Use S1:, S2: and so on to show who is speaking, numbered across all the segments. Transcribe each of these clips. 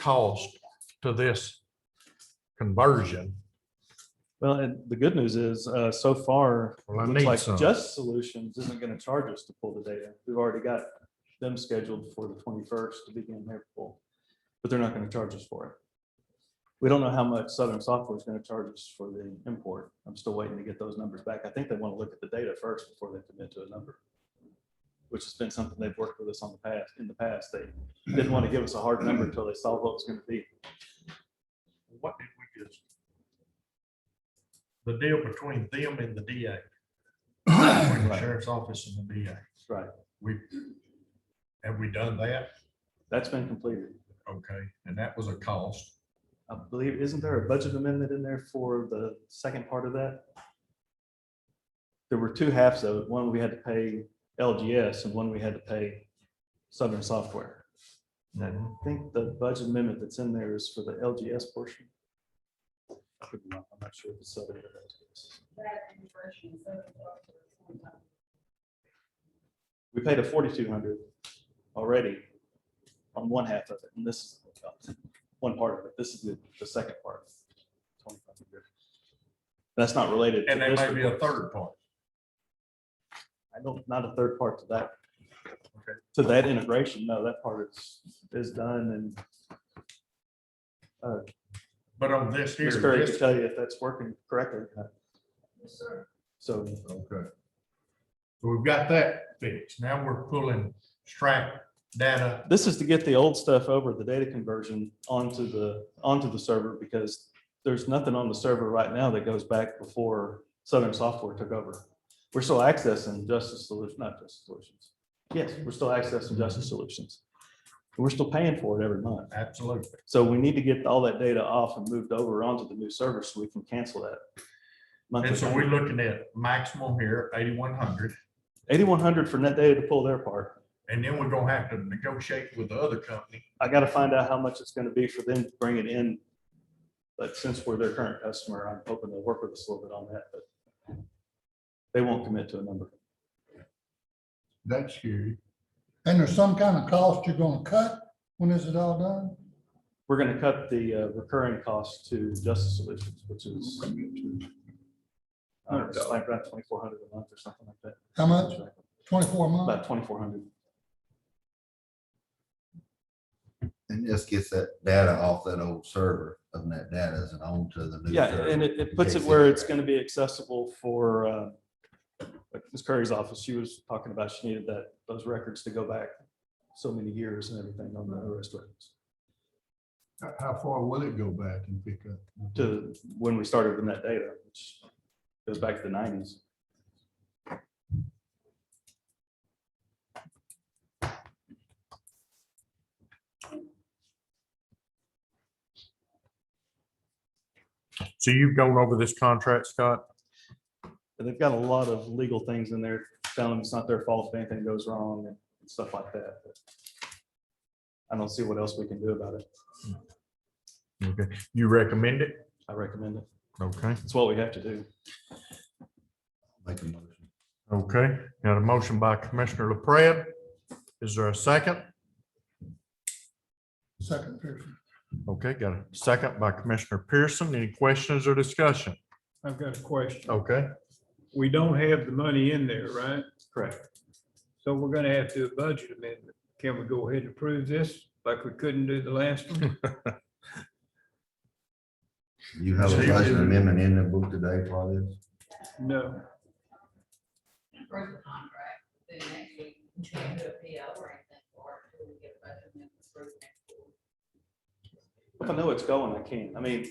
S1: cost to this conversion?
S2: Well, and the good news is, uh, so far, it
S1: Well, I
S2: looks
S1: need
S2: like
S1: some.
S2: Just Solutions isn't gonna charge us to pull the data. We've already got them scheduled for the twenty-first to begin their pull, but they're not gonna charge us for it. We don't know how much Southern Software is gonna charge us for the import. I'm still waiting to get those numbers back. I think they wanna look at the data first before they commit to a number. Which has been something they've worked with us on the past, in the past. They didn't wanna give us a hard number until they saw what it was gonna be.
S1: What did we just? The deal between them and the DA. between the
S2: Right.
S1: Sheriff's Office and the DA.
S2: Right.
S1: We, have we done that?
S2: That's been completed.
S1: Okay, and that was a cost.
S2: I believe, isn't there a budget amendment in there for the second part of that? There were two halves of it. One, we had to pay LGS and one we had to pay Southern Software. And I
S1: Mm-hmm.
S2: think the budget amendment that's in there is for the LGS portion. I could be wrong. I'm not sure if it's Southern or LGS. We paid a forty-two hundred already on one half of it, and this is one part of it. This is the, the second part. 2,500. That's not related. to
S1: And there
S2: this
S1: may be a
S2: request.
S1: third part.
S2: I don't, not a third part to that. To that integration, no, that part is, is done and
S1: But on this here.
S2: Ms. Curry
S1: this-
S2: can tell you if that's working correctly. or not. So
S1: Okay. So we've got that fixed. Now we're pulling strap data.
S2: this is to get the old stuff over, the data conversion onto the, onto the server because there's nothing on the server right now that goes back before Southern Software took over. We're still accessing Justice Solutions, not Justice Solutions. Yes, we're still accessing Justice Solutions. We're still paying for it every month.
S1: Absolutely.
S2: So we need to get all that data off and moved over onto the new server so we can cancel that.
S1: And so
S2: monthly.
S1: we're looking at maximum here, eighty-one hundred.
S2: Eighty-one hundred for net data to pull their part.
S1: And then we're gonna have to negotiate with the other company.
S2: I gotta find out how much it's gonna be for them to bring it in. But since we're their current customer, I'm hoping they'll work with us a little bit on that, but they won't commit to a number.
S3: That's huge. And there's some kind of cost you're gonna cut when this is all done?
S2: We're gonna cut the uh, recurring cost to Justice Solutions, which is uh, it's like around twenty-four hundred a month or something like that.
S3: How much? Twenty-four
S2: About
S3: months?
S2: twenty-four hundred.
S4: And just gets that data off that old server of that data and onto the new.
S2: Yeah,
S4: server.
S2: and it, it puts it
S4: Yes,
S2: where
S4: yes.
S2: it's gonna be accessible for, uh, like Ms. Curry's office, she was talking about, she needed that, those records to go back so many years and everything on the arrest records
S3: How far will it go back and pick up?
S2: to when we started with that data, which goes back to the nineties.
S1: So you've gone over this contract, Scott?
S2: And they've got a lot of legal things in there, telling them it's not their fault if anything goes wrong and stuff like that. but I don't see what else we can do about it.
S1: Okay, you recommend it?
S2: I recommend it.
S1: Okay.
S2: It's what we have to do.
S4: Make a motion.
S1: Okay, got a motion by Commissioner LaPrada. Is there a second?
S3: Second Pearson.
S1: Okay, got a second by Commissioner Pearson. Any questions or discussion?
S5: I've got a question.
S1: Okay.
S5: We don't have the money in there, right?
S2: Correct.
S5: So we're gonna have to do a budget amendment. Can we go ahead and approve this like we couldn't do the last one?
S4: You have a
S1: Steve,
S4: budget
S1: you-
S4: amendment in the book today for this?
S5: No.
S6: approve the contract, then next week, we can do a PO or anything for it, we get a budget and then approve next week.
S2: If I know it's going, I can. I mean,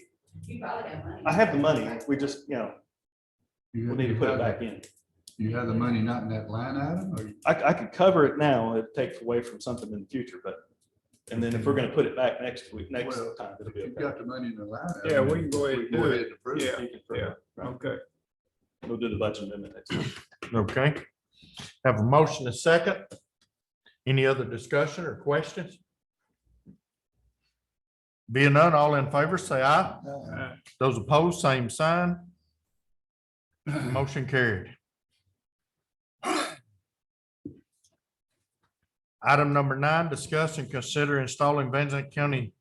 S6: You probably have money.
S2: I have the money. We just, you know, we'll need to put it back in.
S3: You have the money not in that line item or?
S2: I, I could cover it now, it takes away from something in the future, but, and then if we're gonna put it back next week, next
S3: Well,
S2: time, it'll be okay.
S3: the money in the line.
S5: item, Yeah, we can go ahead and do it. Yeah,
S2: You can prove it. Right.
S5: Okay.
S2: We'll do the budget amendment next time.
S1: Okay. Have a motion and second. Any other discussion or questions? Being none, all in favor, say aye.
S5: Uh,
S1: Those opposed, same sign. Motion carried. Item number nine, discuss and consider installing Van Zant County